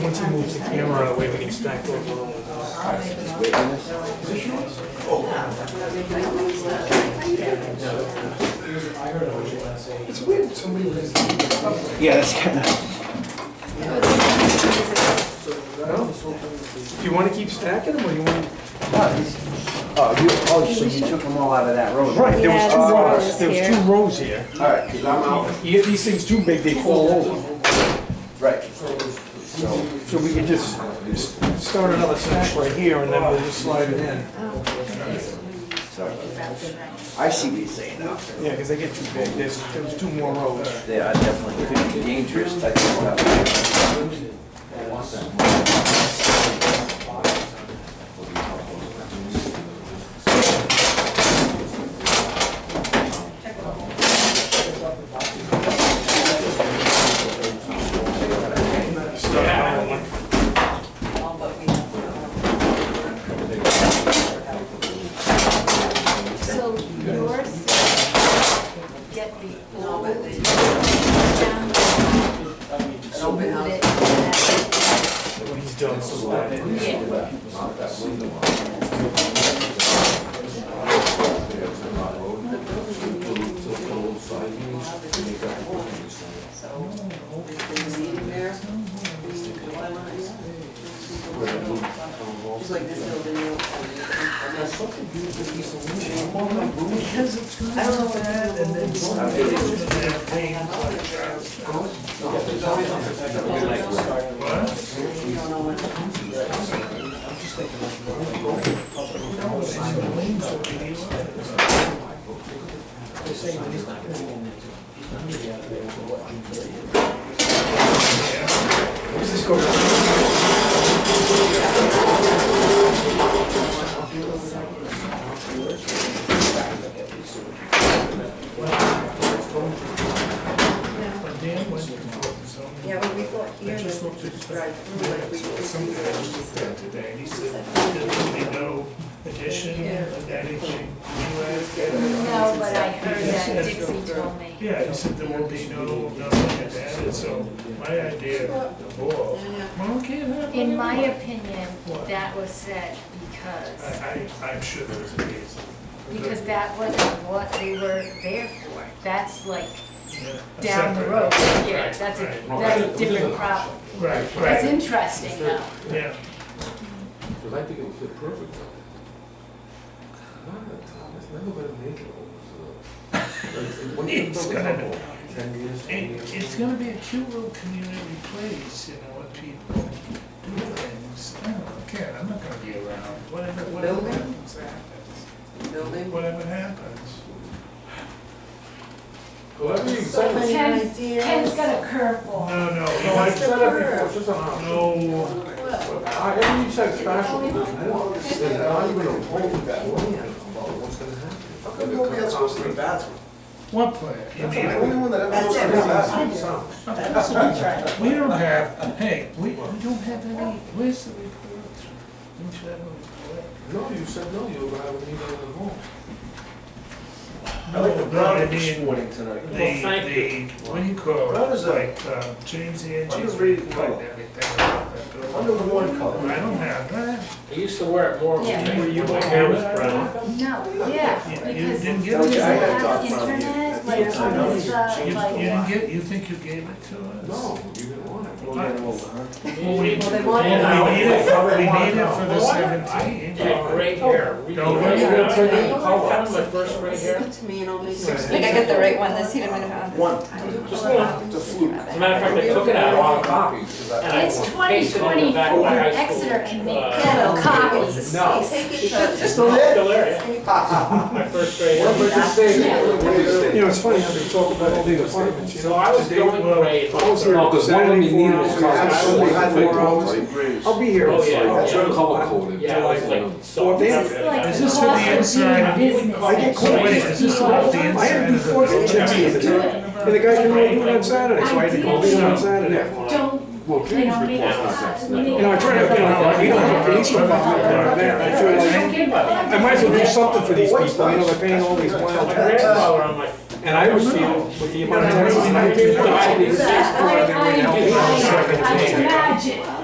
she moves the camera out of the way, we can stack those along. It's weird that somebody lives in the public. Yeah, that's kind of. Do you wanna keep stacking them, or you want? Oh, you, oh, so you took them all out of that road? Right, there was Yeah, two there's rows, rows there was here. two rows here. All right, 'cause I'm out. You get these things too big, they fall over. Right. So we can just s- start another stack right here, and then we'll just slide it in. I see what you're saying now. Yeah, because they get too big, there's, there was two more rows. They are definitely could be dangerous type of stuff. So yours get the old down and move it. What he's done, so slide it. Yeah. Yeah, but we thought here that we could drive through like we used to. today, he said, there's really no addition of anything. No, but I heard that Dixie told me. Yeah, he said there will be no, nothing added, so my idea of the wall, well, can't have. In it. my opinion, that was said because, I, I, I'm sure there was a reason. because that wasn't what they were there for. That's like Yeah, a down the separate- road. Yeah, Right, that's a, right, that's a different problem. Right, It's right, interesting though. yeah. Because I think it would fit perfect on it. Not a Tom, it's never gonna make it over to the. Like, it- It's gonna- Ten years, twenty It, years. it's gonna be a cute little community place, you know, with people do things. I don't care, I'm not gonna be around, whatever, whatever Building? happens, happens. Whatever happens. Whatever you So say. many Ken's, ideas. Ken's got a curveball. No, no, No, I've no, said it before, it's just an option. no, I, everything you said special, there's more, there's not even a whole that plan about what's gonna happen. How come nobody else goes to the bathroom? what plan? You I'm mean, the only one that ever goes to the bathroom. We don't have, hey, we, we don't have any, where's the report? Don't you have a report? No, you said no, you were gonna have a meeting in the home. I like the brown No, I in this mean, morning tonight. The, Well, thank you. the, what do you call That was it, a- like, um, James Angie's was reading report and color. everything about that Under building. the one color. I don't have that. I used to wear it more when Yeah. my- you when my like hair was that? brown. No, yeah, You- You because didn't you get it? Yeah, I had have talked about it. internet, like, Yeah, on I know. this, uh, You, you like, didn't get, you think you gave it to us? No, you didn't want it. Well, we, we need they want it now. it, we need it for the Well, why seventeen. They had gray Oh. hair. We- No, we- we're- we- we're I taking found my Oh, first gray hair. Send it to me and I'll make sure. Six. Like I get the right one this year, I'm gonna One, Just one. it's a fluke. As a matter of fact, I took it out Wrong wrong copy, 'cause I- and I It's pasted it on the back of 2024, my high school. Exeter can make uh, better copies. No. Take it to. Still there? Still there, yeah. My first gray What hair. was just saying? You know, it's funny how they talk about all the apartments, you know? So I was going I gray. was here Oh, Saturday four was hours, called- absolutely had four hours. I'll be here. Oh, yeah. I'll That's try to call color it. coded. Yeah, I was like, so. Well, they- This is like Is the this for the cost of inside? being a business. I get So called. wait, is this about the I had inside to do of the four building? kitchens the other day, and the guy couldn't really do it on Saturday, so I had to go in on Saturday. Don't, Well, you James know, make reports on us, sex. we need. You know, I try to, you know, we don't have police department down there, I feel like, I might as well do something for these people, you know, they're paying all these wild My taxes. grandfather on my. And I was feeling, with the amount of taxes, I paid, I paid I, I, I, I taxes. can imagine.